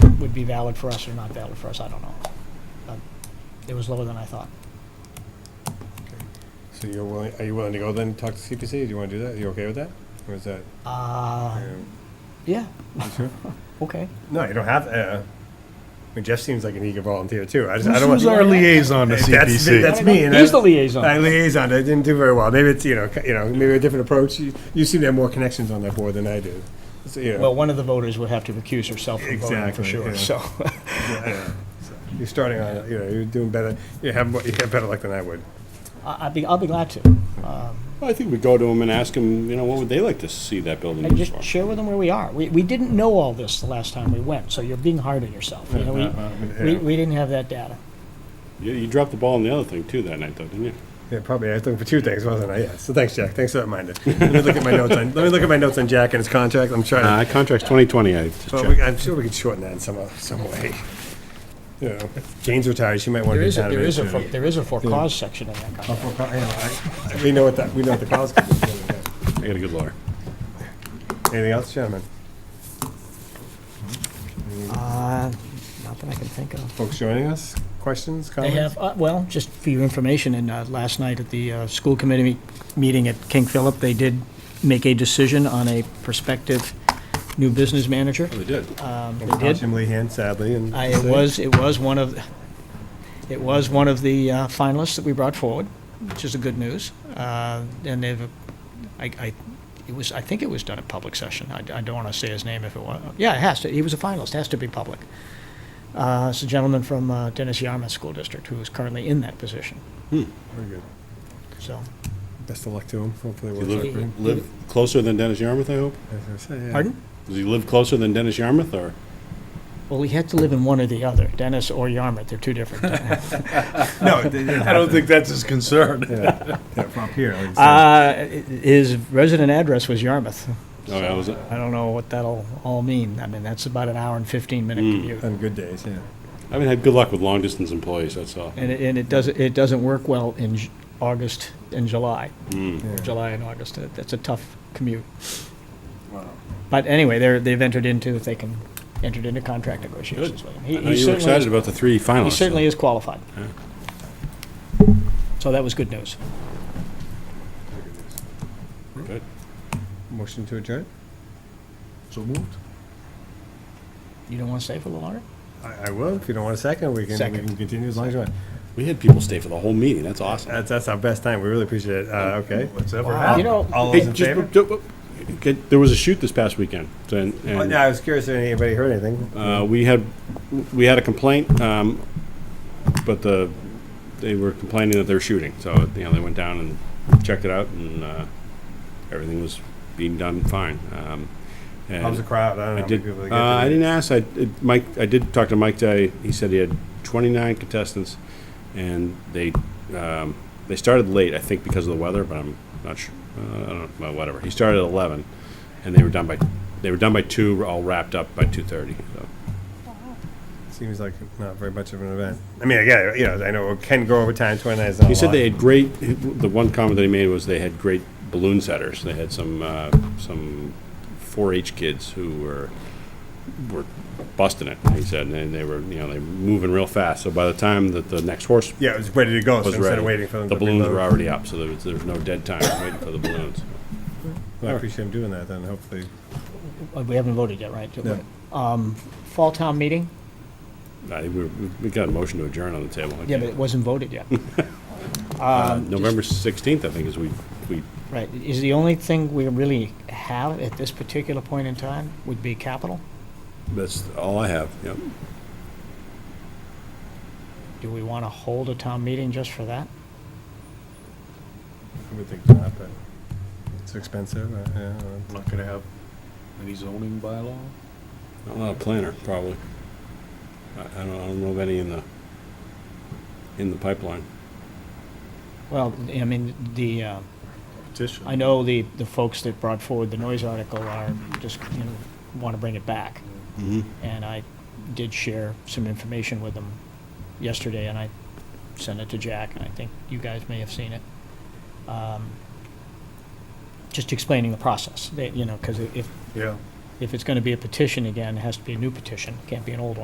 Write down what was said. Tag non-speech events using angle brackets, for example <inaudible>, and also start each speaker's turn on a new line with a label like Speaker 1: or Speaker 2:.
Speaker 1: would be valid for us or not valid for us, I don't know. But It was lower than I thought.
Speaker 2: So you're willing, are you willing to go then talk to CPC? Do you want to do that? Are you okay with that? Or is that?
Speaker 1: Uh,
Speaker 2: um,
Speaker 1: yeah,
Speaker 2: you sure?
Speaker 1: <laughs> okay.
Speaker 2: No, you don't have, uh, I mean, Jeff seems like an eager volunteer too. I just, I don't want.
Speaker 3: Who's our liaison to
Speaker 2: Hey, that's-
Speaker 3: CPC?
Speaker 2: That's me, and
Speaker 1: He's
Speaker 2: I-
Speaker 1: the liaison.
Speaker 2: I liaisoned. I didn't do very well. Maybe it's, you know, c- you know, maybe a different approach. You, you seem to have more connections on that board than I do. So, you know,
Speaker 1: Well, one of the voters would have to recuse herself from voting for
Speaker 2: Exactly,
Speaker 1: sure,
Speaker 2: yeah.
Speaker 1: so. <laughs>
Speaker 2: yeah, so You're starting on, you know, you're doing better. You have, more- you have better luck than I would.
Speaker 1: I- I'd be, I'll be glad to. Um,
Speaker 4: I think we go to them and ask them, you know, what would they like to see that building
Speaker 1: And
Speaker 4: used
Speaker 1: just
Speaker 4: for?
Speaker 1: share with them where we are. We, we didn't know all this the last time we went, so you're being hard on yourself. You
Speaker 2: uh,
Speaker 1: know, we, we, we didn't have that data.
Speaker 4: You, you dropped the ball on the other thing too that night though, didn't you?
Speaker 2: Yeah, probably. I was looking for two things, wasn't I? Yeah. So thanks, Jack. Thanks for that reminder. Let me look at my notes on, let me look at my notes on Jack and his contract. I'm trying to.
Speaker 4: Uh, contract's twenty twenty, I just
Speaker 2: Well, we,
Speaker 4: checked.
Speaker 2: I'm sure we could shorten that in some, some way. You know, if Jane's retired, she might
Speaker 1: There
Speaker 2: want to be
Speaker 1: is, a-
Speaker 2: down a
Speaker 1: there
Speaker 2: bit.
Speaker 1: is a,
Speaker 2: too.
Speaker 1: for- there is a for cause section in that contract.
Speaker 2: Well, I- I- I- We know what that, we know what the cause could be.
Speaker 4: I got a good lawyer.
Speaker 2: Anything else, gentlemen?
Speaker 1: Uh, not that I can think of.
Speaker 2: Folks joining us? Questions,
Speaker 1: They
Speaker 2: comments?
Speaker 1: have, uh, well, just for your information, and uh, last night at the uh, school committee me- meeting at King Philip, they did make a decision on a prospective new business manager.
Speaker 2: Oh,
Speaker 4: They did.
Speaker 1: Um,
Speaker 2: And
Speaker 1: They
Speaker 2: without
Speaker 1: did.
Speaker 2: Jim Lehan, sadly, and.
Speaker 1: I- It was, it was one of, it was one of the uh, finalists that we brought forward, which is the good news. Uh, And they've, I, I, it was, I think it was done at public session. I I don't want to say his name if it was, yeah, it has to, he was a finalist, has to be public. Uh, It's a gentleman from uh, Dennis Yarmouth School District who is currently in that position,
Speaker 2: Very good.
Speaker 1: so.
Speaker 2: Best of luck to him. Hopefully it
Speaker 4: You
Speaker 2: works out for him.
Speaker 4: live, live closer than Dennis Yarmouth, I hope?
Speaker 2: As I say, yeah.
Speaker 1: Pardon?
Speaker 4: Does he live closer than Dennis Yarmouth or?
Speaker 1: Well, he had to live in one or the other, Dennis or Yarmouth, they're two
Speaker 4: <laughs>
Speaker 1: different.
Speaker 2: No, it didn't
Speaker 3: I don't think that's his concern.
Speaker 2: Yeah, yeah, from up here. like you said.
Speaker 1: Uh, His resident address was Yarmouth.
Speaker 4: Oh, yeah, was it?
Speaker 1: I don't know what that'll all mean. I mean, that's about an hour and 15 minute
Speaker 4: Hmm.
Speaker 1: commute.
Speaker 2: On good days, yeah.
Speaker 4: I haven't had good luck with long distance employees, that's all.
Speaker 1: And it, and it doesn't, it doesn't work well in J- August and July,
Speaker 4: Hmm.
Speaker 2: yeah.
Speaker 1: July and August. That- That's a tough commute.
Speaker 2: Wow.
Speaker 1: But anyway, they're, they've entered into, if they can, entered into contract negotiations with him. He-
Speaker 4: I
Speaker 1: he
Speaker 4: know you were
Speaker 1: certainly is-
Speaker 4: excited about the three finalists.
Speaker 1: He certainly
Speaker 4: though.
Speaker 1: is qualified. So that was good news.
Speaker 4: Good.
Speaker 2: Motion to adjourn?
Speaker 3: So moved.
Speaker 1: You don't want to stay for a little longer?
Speaker 2: I, I will. If you don't want a second, we can, we
Speaker 1: Second.
Speaker 2: can continue as long as you want.
Speaker 4: We had people stay for the whole meeting, that's awesome.
Speaker 2: That's, that's our best time. We really appreciate it. Uh, okay.
Speaker 3: Whatever
Speaker 1: Wow.
Speaker 3: happened.
Speaker 1: You know-
Speaker 2: All
Speaker 4: Hey,
Speaker 2: those in
Speaker 4: just-
Speaker 2: favor?
Speaker 4: d- d- get- There was a shoot this past weekend, and,
Speaker 2: Oh,
Speaker 4: and
Speaker 2: no, I was curious if anybody heard anything.
Speaker 4: Uh, we had, we had a complaint, um, but the, they were complaining that they were shooting, so, you know, they went down and checked it out, and, uh, everything was being done fine, um. and-
Speaker 2: How's the crowd? I don't know.
Speaker 4: I
Speaker 2: how
Speaker 4: did,
Speaker 2: many people they
Speaker 4: uh,
Speaker 2: get to
Speaker 4: I
Speaker 2: the-
Speaker 4: didn't ask, I, it- Mike, I did talk to Mike today, he said he had twenty-nine contestants, and they, um, they started late, I think because of the weather, but I'm not sure, uh, I don't, well, whatever, he started at eleven, and they were done by, they were done by two, all wrapped up by two-thirty, so.
Speaker 2: Seems like not very much of an event. I mean, I get it, you know, I know it can go over time, twenty-nine is not a
Speaker 4: He said
Speaker 2: lot.
Speaker 4: they had great, the one comment that he made was they had great balloon setters. They had some, uh, some 4-H kids who were, were busting it, he said, and they were, you know, they were moving real fast. So by the time that the next horse
Speaker 2: Yeah, it was ready to go, so
Speaker 4: was
Speaker 2: instead
Speaker 4: ready,
Speaker 2: of waiting for them to
Speaker 4: the balloons were
Speaker 2: reload.
Speaker 4: already up, so there was, there was no dead time waiting for the balloons.
Speaker 2: I appreciate him doing that, then hopefully.
Speaker 1: Uh, We haven't voted yet, right?
Speaker 2: No.
Speaker 1: Um, Fall town meeting?
Speaker 4: I, we, we got a motion to adjourn on the table.
Speaker 1: Yeah,
Speaker 4: I
Speaker 1: but um, it
Speaker 4: can't-
Speaker 1: wasn't voted yet.
Speaker 4: Uh, November 16th, I think, is we, we,
Speaker 1: Right, is the only thing we really have at this particular point in time would be capital?
Speaker 4: that's all I have, yep.
Speaker 1: Do we want to hold a town meeting just for that?
Speaker 2: I would think not, but it's expensive, uh, yeah.
Speaker 3: I'm not gonna have any zoning bylaw.
Speaker 4: I'm not a planner, probably. I, I don't, I don't know of any in the, in the pipeline.
Speaker 1: Well, I mean, the, uh,
Speaker 3: Petition.
Speaker 1: I know the, the folks that brought forward the noise article are just, you know, want to bring it back.
Speaker 4: Mm-hmm.
Speaker 1: And I did share some information with them yesterday, and I sent it to Jack, and I think you guys may have seen it. Um, Just explaining the process, that, you know, because if,
Speaker 3: Yeah.
Speaker 1: if it's going to be a petition again, it has to be a new petition, it can't be an old one.